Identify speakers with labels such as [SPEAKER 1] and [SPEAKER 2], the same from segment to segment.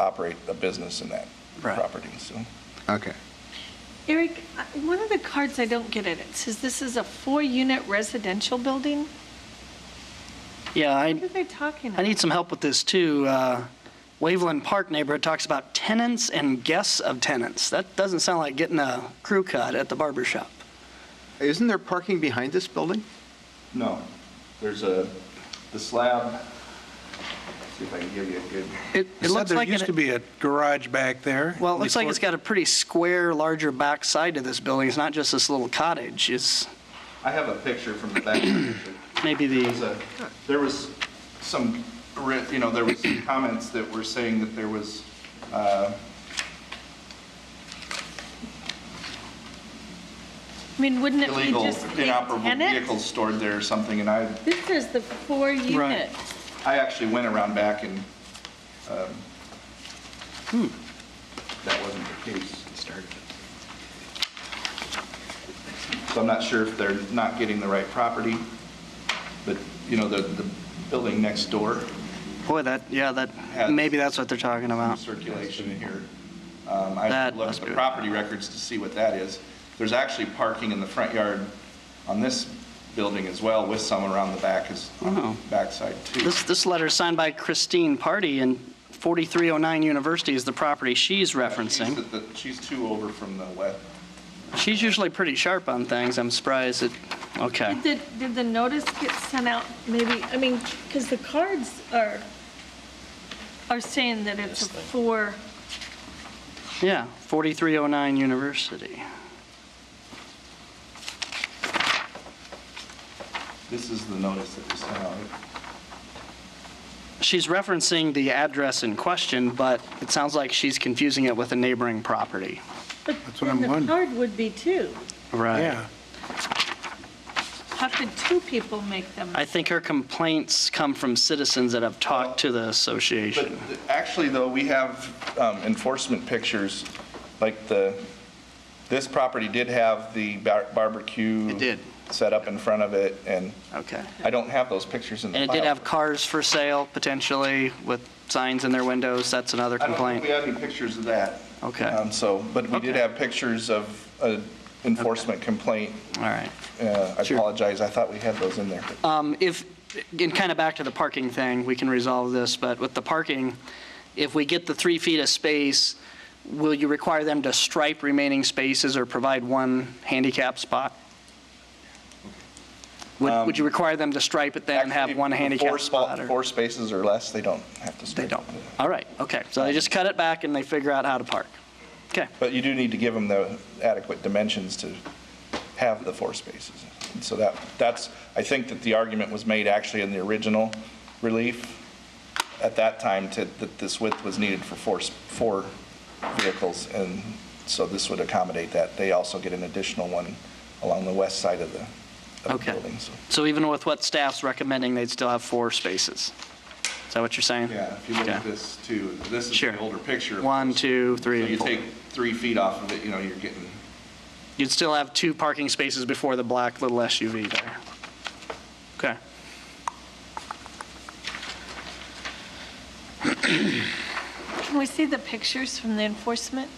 [SPEAKER 1] operate a business in that
[SPEAKER 2] Right.
[SPEAKER 1] property, so.
[SPEAKER 2] Okay.
[SPEAKER 3] Eric, I- one of the cards I don't get it, it says this is a four-unit residential building?
[SPEAKER 4] Yeah,
[SPEAKER 3] What
[SPEAKER 4] I,
[SPEAKER 3] are they talking about?
[SPEAKER 4] I need some help with this too. Uh, Waveland Park neighborhood talks about tenants and guests of tenants. That doesn't sound like getting a crew cut at the barber shop.
[SPEAKER 2] Isn't there parking behind this building?
[SPEAKER 1] No, there's a, the slab, see if I can give you a good.
[SPEAKER 4] It,
[SPEAKER 5] You
[SPEAKER 4] it
[SPEAKER 5] said
[SPEAKER 4] looks like
[SPEAKER 5] There used
[SPEAKER 4] it-
[SPEAKER 5] to be a garage back there.
[SPEAKER 4] Well, it looks like it's
[SPEAKER 5] Before-
[SPEAKER 4] got a pretty square, larger back side to this building. It's not just this little cottage. It's
[SPEAKER 1] I have a picture from the back.
[SPEAKER 4] maybe
[SPEAKER 1] There's
[SPEAKER 4] the,
[SPEAKER 1] a- There was some, ri- you know, there was some comments that were saying that there was, uh,
[SPEAKER 3] I mean, wouldn't it be
[SPEAKER 1] illegal
[SPEAKER 3] just the
[SPEAKER 1] inoperable vehicles
[SPEAKER 3] tenants?
[SPEAKER 1] stored there or something, and I,
[SPEAKER 3] This is the four-unit.
[SPEAKER 1] I actually went around back and, um, hmm, that wasn't the case. So I'm not sure if they're not getting the right property, but, you know, the, the building next door,
[SPEAKER 4] boy, that, yeah, that, maybe that's what they're talking about.
[SPEAKER 1] circulation here. Um, I have
[SPEAKER 4] That
[SPEAKER 1] to look at
[SPEAKER 4] must
[SPEAKER 1] the
[SPEAKER 4] be-
[SPEAKER 1] property records to see what that is. There's actually parking in the front yard on this building as well, with some around the back, is, on the
[SPEAKER 4] Oh.
[SPEAKER 1] backside too.
[SPEAKER 4] This, this letter is signed by Christine Party, and 4309 University is the property she's
[SPEAKER 1] She's
[SPEAKER 4] referencing.
[SPEAKER 1] at the- She's two over from the west.
[SPEAKER 4] She's usually pretty sharp on things. I'm surprised it, okay.
[SPEAKER 3] Did, did the notice get sent out, maybe, I mean, because the cards are, are saying that it's a four,
[SPEAKER 4] Yeah, 4309 University.
[SPEAKER 1] This is the notice that was sent out.
[SPEAKER 4] She's referencing the address in question, but it sounds like she's confusing it with a neighboring property.
[SPEAKER 3] but
[SPEAKER 5] That's what
[SPEAKER 3] then
[SPEAKER 5] I'm
[SPEAKER 3] the
[SPEAKER 5] wondering.
[SPEAKER 3] card would be two.
[SPEAKER 4] Right.
[SPEAKER 5] Yeah.
[SPEAKER 3] How could two people make them?
[SPEAKER 4] I think her complaints come from citizens that have talked to the
[SPEAKER 1] But
[SPEAKER 4] association.
[SPEAKER 1] th- actually, though, we have um, enforcement pictures, like the, this property did have the bar- barbecue.
[SPEAKER 4] It did.
[SPEAKER 1] Set up in front of it, and
[SPEAKER 4] Okay.
[SPEAKER 1] I don't have those pictures in the
[SPEAKER 4] And
[SPEAKER 1] file.
[SPEAKER 4] it did have cars for sale potentially with signs in their windows. That's another
[SPEAKER 1] I don't think
[SPEAKER 4] complaint.
[SPEAKER 1] we have any pictures of that.
[SPEAKER 4] Okay.
[SPEAKER 1] Um, So, but we did
[SPEAKER 4] Okay.
[SPEAKER 1] have pictures of an enforcement complaint.
[SPEAKER 4] All right.
[SPEAKER 1] Uh, I
[SPEAKER 4] Sure.
[SPEAKER 1] apologize, I thought we had those in there.
[SPEAKER 4] Um, If, and kind of back to the parking thing, we can resolve this, but with the parking, if we get the three feet of space, will you require them to stripe remaining spaces or provide one handicap spot? Would would you require them to stripe it then and
[SPEAKER 1] Um,
[SPEAKER 4] have
[SPEAKER 1] Actually,
[SPEAKER 4] one
[SPEAKER 1] the four
[SPEAKER 4] handicap
[SPEAKER 1] spa-
[SPEAKER 4] spot? or-
[SPEAKER 1] Four spaces or less, they don't have to.
[SPEAKER 4] They
[SPEAKER 1] stripe.
[SPEAKER 4] don't. All right, okay. So they just cut it back and they figure out how to park. Okay,
[SPEAKER 1] But you do need to give them the adequate dimensions to have the four spaces. And so that, that's, I think that the argument was made actually in the original relief at that time to, that this width was needed for four, s- four vehicles. And so this would accommodate that. They also get an additional one along the west side of the, of the
[SPEAKER 4] okay.
[SPEAKER 1] building. so.
[SPEAKER 4] So even with what staff's recommending, they'd still have four spaces? Is that what you're saying?
[SPEAKER 1] Yeah, if you look at
[SPEAKER 4] Okay.
[SPEAKER 1] this too, this is
[SPEAKER 4] Sure.
[SPEAKER 1] the older picture. of
[SPEAKER 4] One,
[SPEAKER 1] this.
[SPEAKER 4] two,
[SPEAKER 1] So
[SPEAKER 4] three,
[SPEAKER 1] you
[SPEAKER 4] and four.
[SPEAKER 1] take three feet off of it, you know, you're getting,
[SPEAKER 4] You'd still have two parking spaces before the black little SUV there. Okay.
[SPEAKER 3] Can we see the pictures from the enforcement?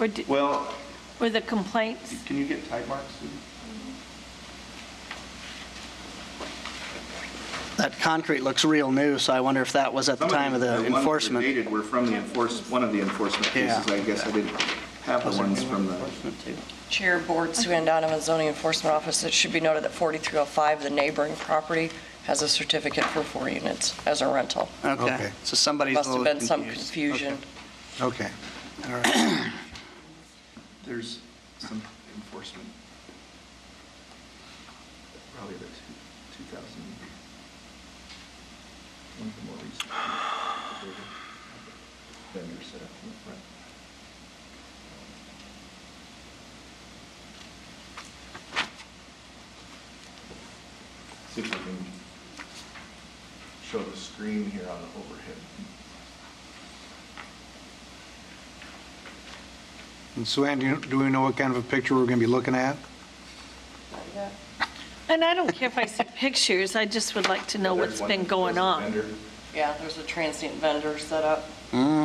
[SPEAKER 3] Or, did-
[SPEAKER 1] well,
[SPEAKER 3] or the complaints?
[SPEAKER 1] can you get type marks? Sue?
[SPEAKER 4] That concrete looks real new, so I wonder if that was at the
[SPEAKER 1] Some
[SPEAKER 4] time of the
[SPEAKER 1] ones that are
[SPEAKER 4] enforcement.
[SPEAKER 1] dated were from the enforce, one of the enforcement
[SPEAKER 4] Yeah.
[SPEAKER 1] cases, I guess I didn't have the ones from the,
[SPEAKER 6] Chair Board Sue Ann Donovan, Zoning Enforcement Office. It should be noted that 4305, the neighboring property, has a certificate for four units as a rental.
[SPEAKER 4] Okay,
[SPEAKER 5] Okay.
[SPEAKER 4] so somebody's a
[SPEAKER 6] Must have
[SPEAKER 4] little
[SPEAKER 6] been some
[SPEAKER 4] confused.
[SPEAKER 6] confusion.
[SPEAKER 5] Okay.
[SPEAKER 1] there's some enforcement. Probably the two- 2000. one of the more recent. Vendor set up in the front. See if I can show the screen here on the overhead.
[SPEAKER 5] And Suann, do you- do we know what kind of a picture we're going to be looking at?
[SPEAKER 3] And I don't care if I see pictures, I just would like to know
[SPEAKER 1] There's
[SPEAKER 3] what's
[SPEAKER 1] one
[SPEAKER 3] been
[SPEAKER 1] that
[SPEAKER 3] going
[SPEAKER 1] shows the
[SPEAKER 3] on.
[SPEAKER 1] vendor.
[SPEAKER 6] Yeah, there's a transient vendor set up.
[SPEAKER 4] Mm.